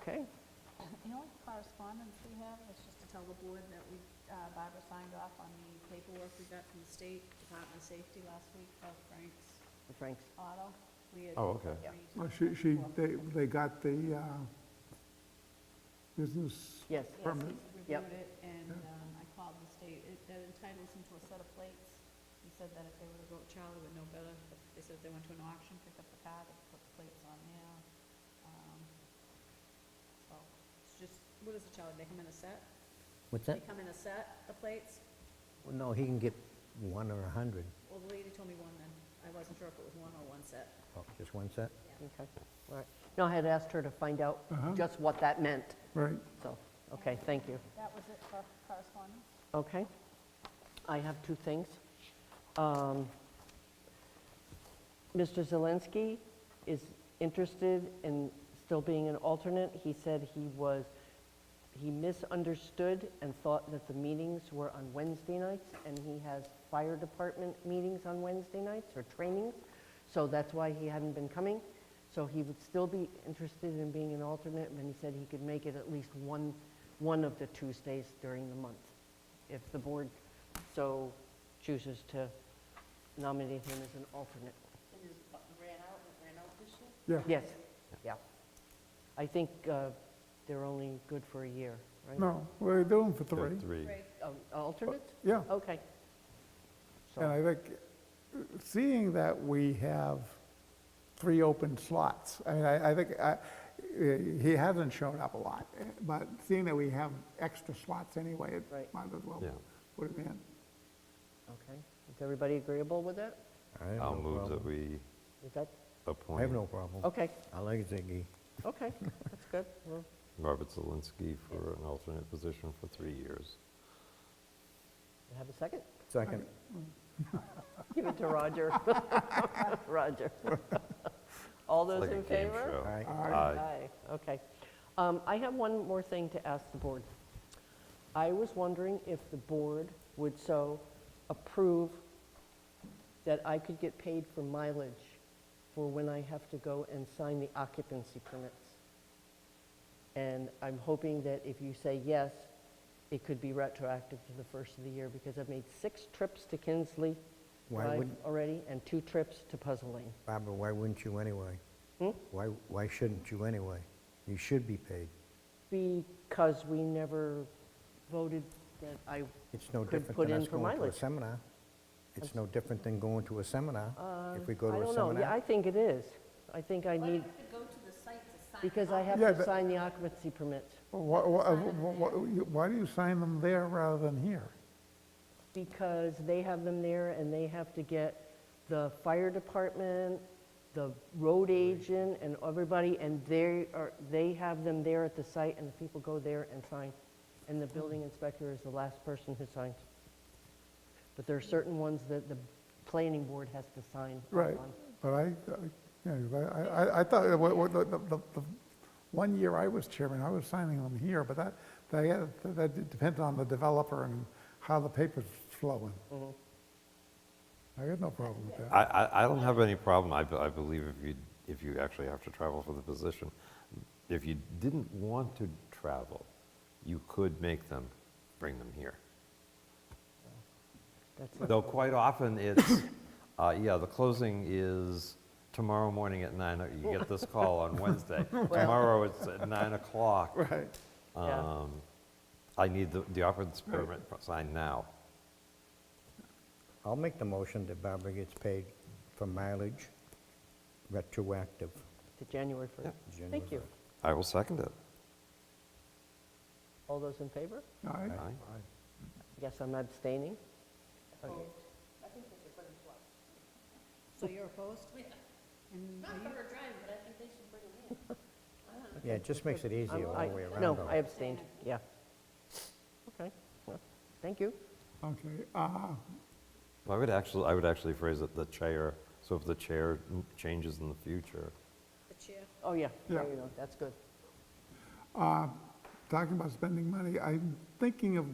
Okay, The only correspondence we have is just to tell the board that we, uh, Barbara signed off on the paperwork we got from the State Department of Safety last week about Frank's Frank's, Auto. We had Oh, okay. agreed to Well, she, she, work- they, they got the uh, business yes, Yes, permit. he's Yep. Reviewed it, and um, I called the state. It that entitles him to a set of plates. He said that if they were to go, Charlie would know better. But They said if they went to an auction, picked up the car, they could put the plates on there. Um, So, it's just, what is it, Charlie? They come in a set? What's They that? come in a set, the plates? Well, No, he can get one or a 100. Well, the lady told me one then. I wasn't sure if it was one or one set. Oh, Just one set? okay, all right. No, I had asked her to find out just what that meant, Right, so, okay, thank you. That was it for correspondence? Okay. I have two things. Um, Mr. Zelensky is interested in still being an alternate. He said he was, he misunderstood and thought that the meetings were on Wednesday nights, and he has fire department meetings on Wednesday nights or trainings, so that's why he hadn't been coming. So he would still be interested in being an alternate, and he said he could make it at least one, one of the Tuesdays during the month if the board so chooses to nominate him as an alternate. yeah. Yes, yeah. I think uh, they're only good for a year, right? No, we're doing for They're three. Three. Oh, Alternates? Yeah, Okay. So- and I think, uh, seeing that we have three open slots, I mean, I, I think, uh, he hasn't shown up a lot, eh, but seeing that we have extra slots anyway, it Right. might as well Yeah. put him in. Okay. Is everybody agreeable with that? I have I'll no move that problem. we Is that, appoint. I have no problem. okay, I like Ziggy. okay, that's good. We're- Robert Zelinski for an alternate position for three years. Have a second? Second. Give it to Roger. Roger. All those Like a in game favor? show. Aye. Aye. Aye, okay. Um, I have one more thing to ask the board. I was wondering if the board would so approve that I could get paid for mileage for when I have to go and sign the occupancy permits. And I'm hoping that if you say yes, it could be retroactive to the first of the year, because I've made six trips to Kinsley Why Drive wouldn't- already, and two trips to Puzzle Lane. Barbara, why wouldn't you anyway? Hmm? Why, why shouldn't you anyway? You should be paid. Because we never voted that I, It's no Could different put than in us for going to a mileage. seminar. It's no different than going to a seminar. If we go Uh, I to a don't know, yeah, I seminar, think it is. I think I need, to go to the site to sign because I have Yeah, to but- sign the occupancy permit, Why, why do you sign them there rather than here? because they have them there, and they have to get the fire department, the road agent, and everybody, and they are, they have them there at the site, and the people go there and sign, and the building inspector is the last person who signs. But there are certain ones that the planning board has to sign off Right, on. but I, I- yeah, but I, I- I thought, that what- what- the, the, the- one year I was chairman, I was signing them here, but that, that, that depends on the developer and how the paper's flowing. I got no problem with that. I, I, I don't have any problem, I, be- I believe if you, if you actually have to travel for the position. If you didn't want to travel, you could make them, bring them here. That's Though quite often it's, uh, yeah, the closing is tomorrow morning at nine, o- you get this call on Wednesday. Tomorrow it's at nine o'clock. Right, Yeah. Um, I need the, the occupancy permit signed now. I'll make the motion that Barbara gets paid for mileage retroactive. To January 1st. January Thank you. first. I will second it. All those in favor? all right. Aye. Yes, I'm abstaining. Okay. So you're opposed? And are you- Yeah, it just makes it I'm- easier all I- the way around. Oh. No, though. I abstained, yeah. Okay, well, thank you. Okay, uh, Well, I would actually, I would actually phrase it the chair, so if the chair m- changes in the future, the chair? Oh, yeah, there Yeah. you go, that's good. talking about spending money, I'm thinking of,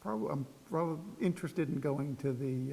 probably, I'm rather interested in going to the